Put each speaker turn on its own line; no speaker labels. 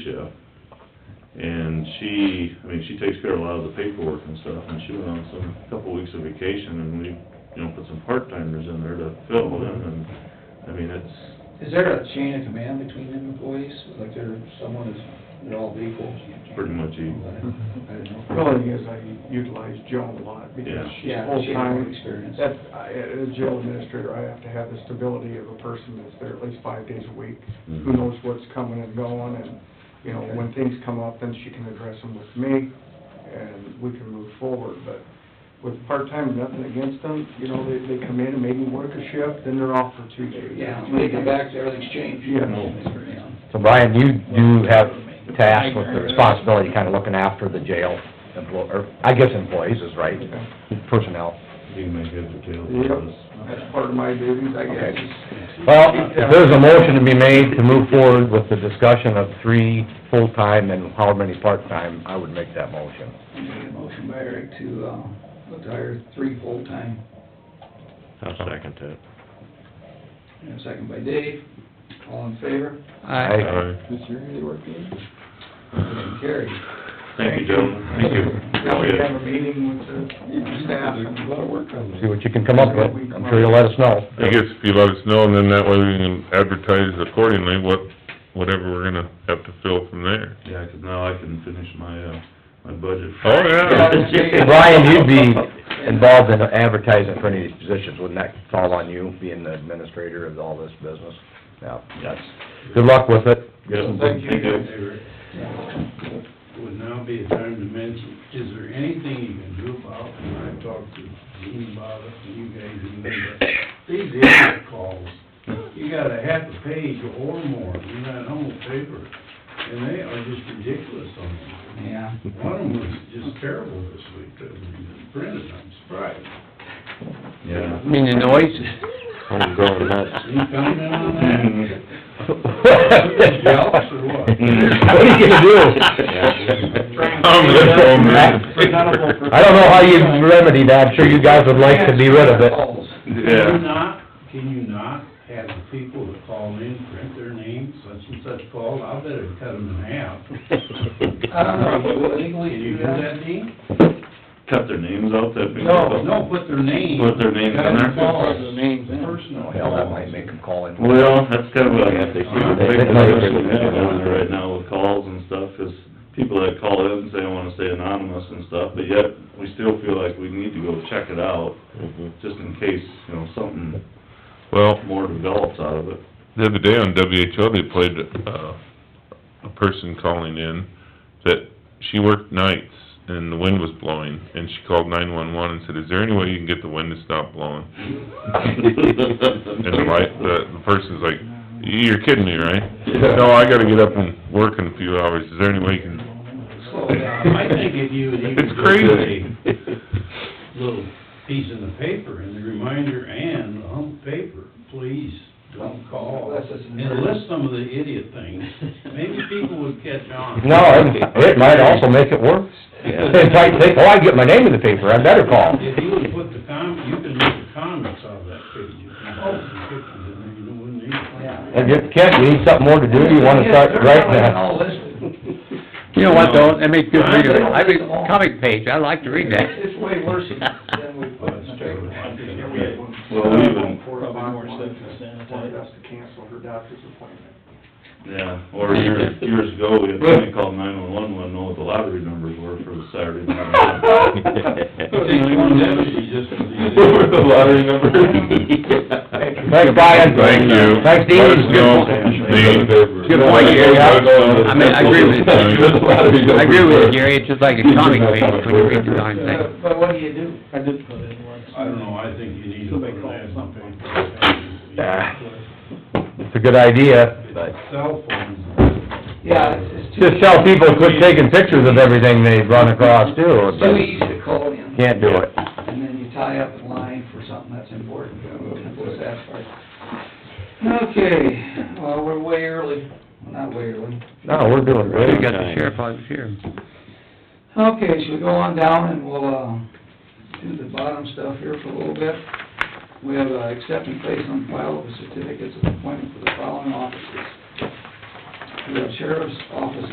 stuff. And she, I mean, she takes care of a lot of the paperwork and stuff, and she went on some, couple weeks of vacation, and we, you know, put some part-timers in there to fill in, and, I mean, it's,
Is there a chain of command between them employees? Like there, someone is, they're all equal?
Pretty much equal.
I don't know.
Really is, I utilize Joan a lot because
Yeah.
she's
Yeah, she has more
full-time.
experience.
That's, I, as jail administrator, I have to have the stability of a person that's there at least five days a week, who
Mhm.
knows what's coming and going, and, you know, when things come up, then she can address them with me, and we can move forward, but with part-time, nothing against them, you know, they, they come in and maybe work a shift, then they're off for two days.
Yeah, when they come back, everything's changed. um,
Yeah.
So Brian, you do have tasked with the responsibility, kind of looking after the jail employ, or, I guess employees is right, personnel.
you can make heads or tails
Yep.
of this.
That's part of my duties, I guess.
Okay. Well, if there's a motion to be made to move forward with the discussion of three full-time and how many part-time, I would make that motion.
Make a Motion by Eric to, uh, look to hire three full-time,
I'll second that.
and a second by Dave. All in favor?
Aye.
Aye.
This year, they work in?
Motion carried.
Thank you, gentlemen, thank you.
Now we have a meeting with the staff and
A lot of work on
See what you can come up with, I'm sure you'll let us know.
I guess if you let us know, and then that way we can advertise accordingly, what, whatever we're gonna have to fill from there.
Yeah, 'cause now I can finish my, uh, my budget.
Oh, yeah.
Brian, you'd be involved in advertising for any of these positions, wouldn't that fall on you, being the administrator of all this business? Yeah, yes. Good luck with it.
Yeah,
Thank you.
thank you.
Would now be a time to mention, is there anything you can do about, and I talked to Dean about it, and you guys, even, but these idiot calls, you got a half a page or more in that whole paper, and they are just ridiculous on them.
Yeah.
One of them was just terrible this week, that was printed, I'm surprised.
Yeah.
I mean, the noise? I'm going
Any
nuts.
comment on that?
What are you gonna do?
I'm gonna go, man.
I don't know how you remedy that, I'm sure you guys would like to be rid of it.
Can you
Yeah,
not, can you not have the people that call in print their name, such and such called, I better cut them in half.
I don't know,
Can
legally,
you
you
do that, Dean?
Cut their names out, that big...
No, put their name.
Put their names in
Cut
there.
calls,
Their
Personal.
Hell, that might make them call in.
Well, that's kind of a, big discussion we have on there right now with calls and stuff, is people that call in and say, I wanna stay anonymous and stuff, but yet, we still feel like we need to go check it out, just in case, you know, something
well,
more develops out of it.
the other day on WHO, they played, uh, a person calling in that she worked nights and the wind was blowing, and she called nine-one-one and said, is there any way you can get the wind to stop blowing? And the light, the, the person's like, you're kidding me, right? No, I gotta get up and work in a few hours, is there any way you can
Slow down, I think if you would even.
It's crazy.
put a Little piece in the paper, and the reminder and the hump paper, please, don't call.
Unless it's an
And list some of the idiot things, maybe people would catch on.
No, it- it might also make it worse. They might think, oh, I get my name in the paper, I better call.
If you would put the com, you can make the comments out of that page, you can put some pictures in there, you know, wouldn't
Yeah.
need.
And if, Kent, you need something more to do, you wanna start right now?
You know what, though, that makes good reading, I read comic page, I like to read that.
It's way worse than we put in the paper.
Yeah, we had one.
Well, we even-
Probably more stuff than Wanted us to cancel her doctor's appointment.
Yeah, or years, years ago, we had somebody call nine-one-one, wanna know what the lottery numbers were for the Saturday night.
Take one deputy just for the-
The lottery numbers.
Thanks, Brian.
Thank you.
Thanks, Dean.
Let us know, Dean.
Good point, Gary.
I mean, I agree with you, I agree with you, Gary, it's just like a comic page when you read the darn thing.
But what do you do? I did put in
I don't know, I think you need to put an ad in the
Yeah.
paper.
It's a good idea, but
Cell phones.
Yeah, it's, it's too,
just tell people quit taking pictures of everything they run across too.
too easy to call in,
Can't do it.
and then you tie up the line for something that's important, what's that part? Okay, well, we're way early, not way early.
No, we're doing
We
great.
got the sheriff out here.
Okay, should we go on down and we'll, uh, do the bottom stuff here for a little bit? We have, uh, accept and place on file of certificates of appointment for the following offices. We have sheriff's office